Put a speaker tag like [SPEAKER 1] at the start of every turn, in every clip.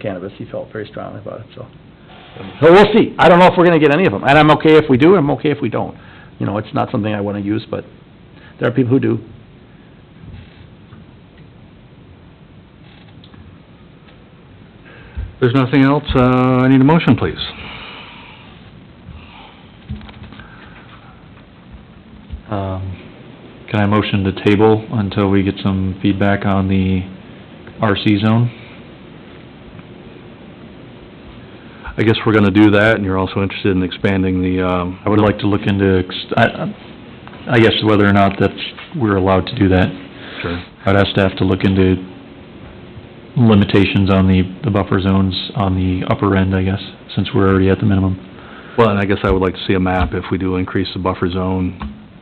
[SPEAKER 1] cannabis, he felt very strongly about it, so. So we'll see, I don't know if we're gonna get any of them, and I'm okay if we do, I'm okay if we don't. You know, it's not something I wanna use, but there are people who do.
[SPEAKER 2] There's nothing else, uh, I need a motion, please. Um, Can I motion to table until we get some feedback on the RC zone? I guess we're gonna do that, and you're also interested in expanding the, um... I would like to look into, ex- I, I guess whether or not that's, we're allowed to do that. Sure. I'd ask staff to look into limitations on the, the buffer zones on the upper end, I guess, since we're already at the minimum.
[SPEAKER 3] Well, and I guess I would like to see a map if we do increase the buffer zone.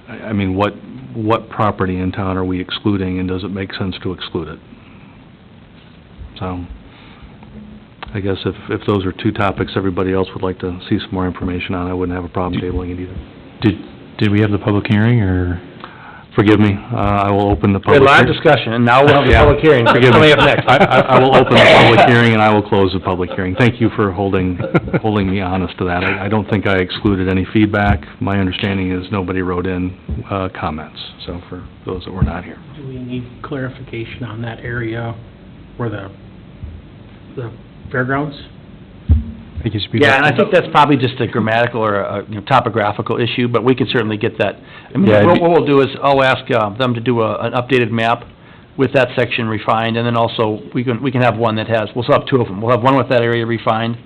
[SPEAKER 3] I I mean, what, what property in town are we excluding, and does it make sense to exclude it? So, I guess if, if those are two topics everybody else would like to see some more information on, I wouldn't have a problem tabling it either.
[SPEAKER 2] Did, did we have the public hearing, or?
[SPEAKER 3] Forgive me, uh, I will open the
[SPEAKER 1] We had
[SPEAKER 3] public...
[SPEAKER 1] a lot of
[SPEAKER 3] hear-
[SPEAKER 1] discussion, and now we'll have a public hearing,
[SPEAKER 3] Forgive me.
[SPEAKER 1] coming up next.
[SPEAKER 3] I, I I will open the public hearing and I will close the public hearing. Thank you for holding, holding me honest to that. I, I don't think I excluded any feedback. My understanding is nobody wrote in, uh, comments, so for those that were not here.
[SPEAKER 4] Do we need clarification on that area where the, the fairgrounds?
[SPEAKER 1] Yeah, and I think that's probably just a grammatical or a, you know, topographical issue, but we could certainly get that. I mean,
[SPEAKER 2] Yeah, it'd
[SPEAKER 1] what
[SPEAKER 2] be-
[SPEAKER 1] what we'll do is, I'll ask uh, them to do a, an updated map with that section refined, and then also, we can, we can have one that has, we'll still have two of them. We'll have one with that area refined,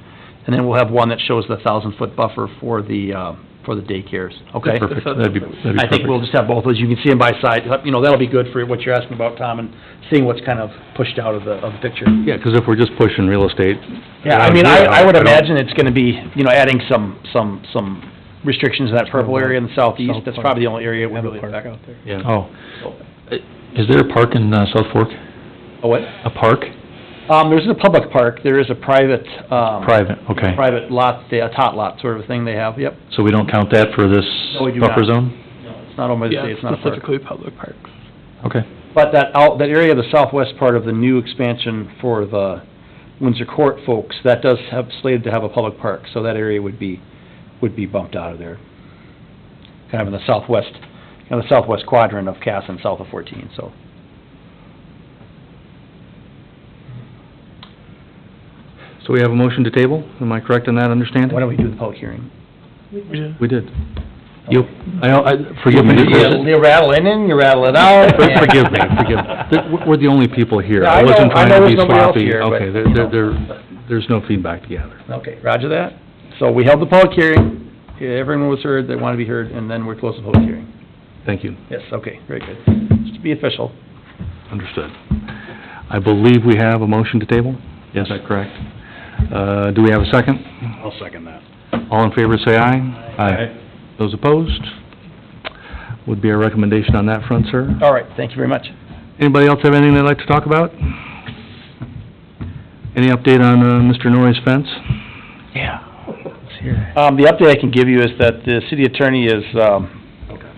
[SPEAKER 1] and then we'll have one that shows the thousand-foot buffer for the, uh, for the daycares, okay?
[SPEAKER 2] Perfect, that'd be, that'd be perfect.
[SPEAKER 1] I think we'll just have both of those, you can see them by side, you know, that'll be good for what you're asking about, Tom, and seeing what's kind of pushed out of the, of the picture.
[SPEAKER 3] Yeah, because if we're just pushing real estate.
[SPEAKER 1] Yeah, I mean, I, I would
[SPEAKER 3] don't-
[SPEAKER 1] imagine it's gonna be, you know, adding some, some, some restrictions in that purple area in the southeast, that's probably the only area it would really affect.
[SPEAKER 3] Yeah.
[SPEAKER 2] Oh. Is there a park in, uh, South Fork?
[SPEAKER 1] Oh, what?
[SPEAKER 2] A park?
[SPEAKER 1] Um, there's a public park, there is a private, um,
[SPEAKER 2] Private, okay.
[SPEAKER 1] private lot, the, a tot lot sort of a thing they have, yep.
[SPEAKER 2] So we don't count that for this
[SPEAKER 1] No, we do
[SPEAKER 2] buffer
[SPEAKER 1] not.
[SPEAKER 2] zone?
[SPEAKER 1] It's not owned by the state, it's not a park.
[SPEAKER 5] public parks.
[SPEAKER 2] Okay.
[SPEAKER 1] But that out, that area, of the southwest part of the new expansion for the Windsor Court folks, that does have, slated to have a public park, so that area would be, would be bumped out of there. Kind of in the southwest, in the southwest quadrant of Cass and south of fourteen, so.
[SPEAKER 3] So we have a motion to table, am I correct in that understanding?
[SPEAKER 1] Why don't we do the public hearing?
[SPEAKER 3] We did.
[SPEAKER 2] You, I, I, forgive me.
[SPEAKER 1] You you rattle it in, you rattle it out.
[SPEAKER 3] For- Forgive me, forgive, Th- we're- we're the only people here.
[SPEAKER 1] Yeah, I know-
[SPEAKER 3] wasn't
[SPEAKER 1] I
[SPEAKER 3] trying
[SPEAKER 1] know
[SPEAKER 3] to
[SPEAKER 1] there's
[SPEAKER 3] be
[SPEAKER 1] nobody else
[SPEAKER 3] sloppy.
[SPEAKER 1] here, but,
[SPEAKER 3] Okay,
[SPEAKER 1] you
[SPEAKER 3] there,
[SPEAKER 1] know.
[SPEAKER 3] there, there- there's no feedback to gather.
[SPEAKER 1] Okay, roger that. So we held the public hearing, everyone was heard that wanted to be heard, and then we're closing the public hearing.
[SPEAKER 3] Thank you.
[SPEAKER 1] Yes, okay, very good. Just to be official.
[SPEAKER 3] Understood. I believe we have a motion to table?
[SPEAKER 2] Yes.
[SPEAKER 3] Is that correct? Uh, do we have a second?
[SPEAKER 4] I'll second that.
[SPEAKER 3] All in favor, say aye. Those opposed? Would be our recommendation on that front, sir.
[SPEAKER 1] All right, thank you very much.
[SPEAKER 3] Anybody else have anything they'd like to talk about? Any update on, uh, Mr. Norrie's fence?
[SPEAKER 1] Yeah. Um, the update I can give you is that the city attorney is, um,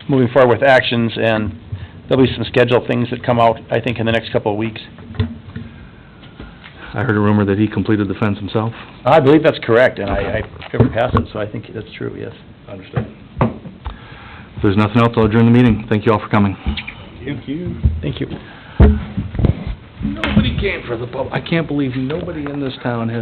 [SPEAKER 1] moving forward with actions, and there'll be some scheduled things that come out, I think, in the next couple of weeks.
[SPEAKER 3] I heard a rumor that he completed the fence himself.
[SPEAKER 1] I believe that's correct, and I, I covered past it, so I think that's true, yes.
[SPEAKER 3] Understood. If there's nothing else, I'll adjourn the meeting. Thank you all for coming.
[SPEAKER 4] Thank you.
[SPEAKER 1] Thank you.
[SPEAKER 3] Nobody came for the pub, I can't believe nobody in this town has